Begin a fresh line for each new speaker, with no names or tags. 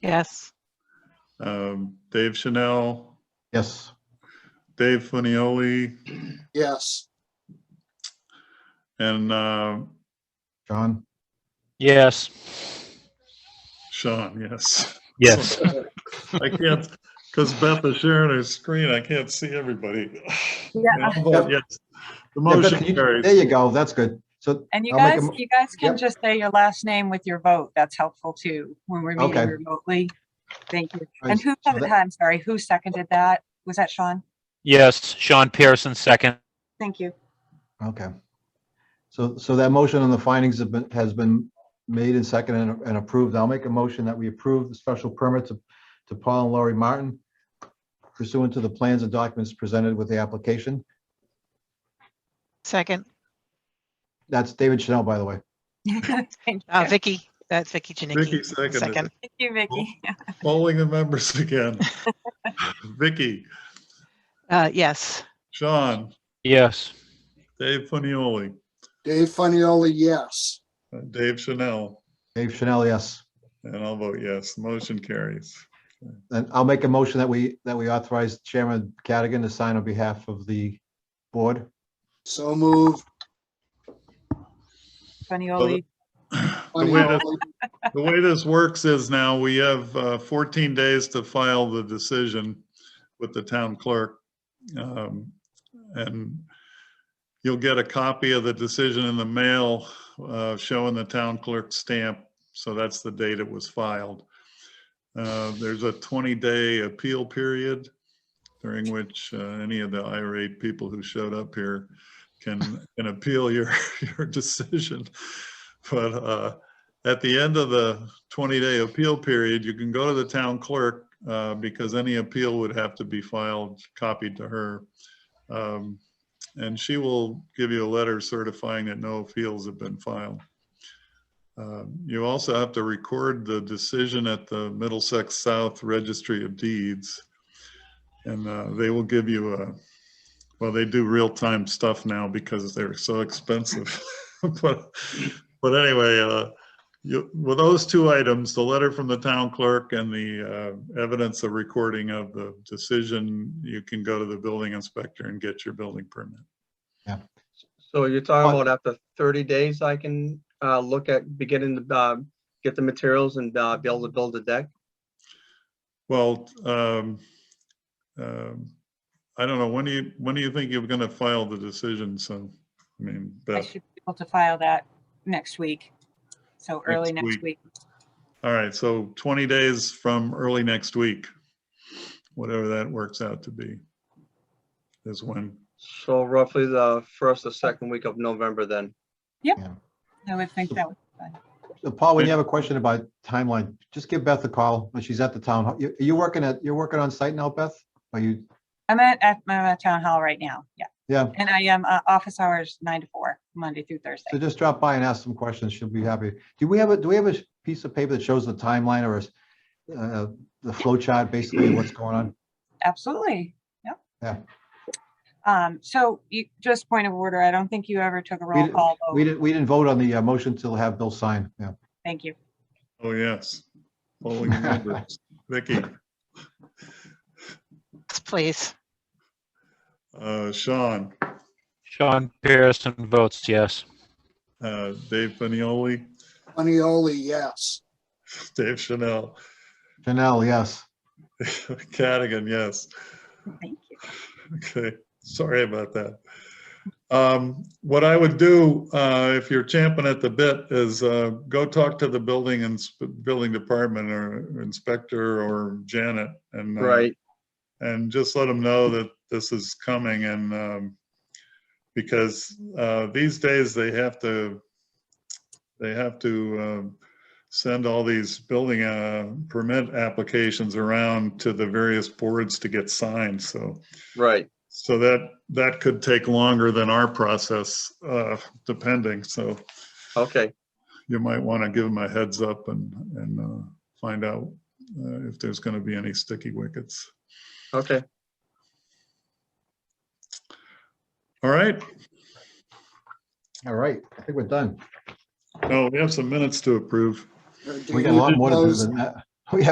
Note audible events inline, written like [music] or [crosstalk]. Yes.
Um, Dave Chanel,
Yes.
Dave Funioli,
Yes.
and uh,
John?
Yes.
Sean, yes.
Yes.
I can't, because Beth is sharing her screen, I can't see everybody.
Yeah,
I'll vote Yes. The
Yeah, Beth,
motion
can you-
carries.
There you go. That's good. So,
and you
I'll make a
guys,
mo-
you guys can
Yep.
just say your last name with your vote. That's helpful too, when we're
Okay.
meeting remotely. Thank you. And who,
so that-
I'm sorry, who seconded that? Was that Sean?
Yes. Sean Pearson, second.
Thank you.
okay. So, so that motion on the findings have been, has been made and seconded and- and approved. I'll make a motion that we approve the special permit to, to Paul and Laurie Martin pursuant to the plans and documents presented with the application.
Second,
That's David Chanel, by the way.
[laughs] [laughs] Thank
uh,
you.
Vicky, that's Vicky
Vicky
Janicki.
seconded
Second,
it.
Thank you, Vicky. [laughs]
Polling the members again. [laughs] Vicky,
uh, yes.
Sean,
Yes.
Dave Funioli, uh,
Dave Funnyoli, yes.
Dave Chanel,
Dave Chanel, yes.
and I'll vote yes. Motion carries.
And I'll make a motion that we, that we authorize Chairman Cadigan to sign on behalf of the board.
So moved.
Funny Oli.
The way that-
Funnioli.
The way this works is now we have uh, 14 days to file the decision with the town clerk. Um, And you'll get a copy of the decision in the mail uh, showing the town clerk stamp. So that's the date it was filed. Uh, There's a 20-day appeal period during which uh, any of the irate people who showed up here can, can appeal your, [laughs] your decision. But uh, at the end of the 20-day appeal period, you can go to the town clerk uh, because any appeal would have to be filed, copied to her. Um, And she will give you a letter certifying that no appeals have been filed. Um, You also have to record the decision at the Middlesex South Registry of Deeds. And uh, they will give you a, well, they do real-time stuff now because they're so expensive. [laughs] But but anyway, uh, you, with those two items, the letter from the town clerk and the uh, evidence of recording of the decision, you can go to the building inspector and get your building permit.
So you're talking about after thirty days, I can, uh, look at beginning to, uh, get the materials and, uh, be able to build a deck?
Well, um, um, I don't know, when do you, when do you think you're gonna file the decision? So, I mean,
I
Beth,
should be able to file that next week. So early
Next
next week.
all right, so 20 days from early next week, whatever that works out to be, is when,
So roughly the first or second week of November then.
I would think that would be fun.
So Uh, Paul, when you have a question about timeline, just give Beth a call when she's at the town. hall. You- You're working at, you're working on site now, Beth? Are you,
I'm at, at my town hall right now. Yeah.
yeah,
And I am, uh, office hours nine to four, Monday through Thursday.
so just drop by and ask some questions. She'll be happy. Do we have a, do we have a piece of paper that shows the timeline or is uh, the flow chart basically of what's going on?
Absolutely, yep.
Yeah.
Um, so you, just point of order, I don't think you ever took a roll
di-
call
We
vote.
didn't, we didn't vote on the uh, motion to have Bill sign, yeah.
Thank you.
oh, yes. Polling the members. Vicky,
Please,
uh, Sean,
Sean Pearson votes yes.
uh, Dave Fanioli,
Funnioli, yes.
[laughs] Dave Chanel, [laughs]
Janelle, yes.
Cadigan, yes.
Thank you.
Okay, sorry about that. Um, What I would do, uh, if you're champing at the bit, is uh, go talk to the building and, building department or inspector or Janet and. uh,
Right,
and just let them know that this is coming and, um, because, uh, these days they have to, they have to, um, send all these building, uh, permit applications around to the various boards to get signed, so,
right.
so that, that could take longer than our process, uh, depending, so
Okay,
you might want to give them a heads up and, and, uh, find out, uh, if there's going to be any sticky wickets.
okay.
All right,
All right, I think we're done.
No, we have some minutes to approve.
Uh, do
We got a
you
lot more to do
propose-
than that. [laughs]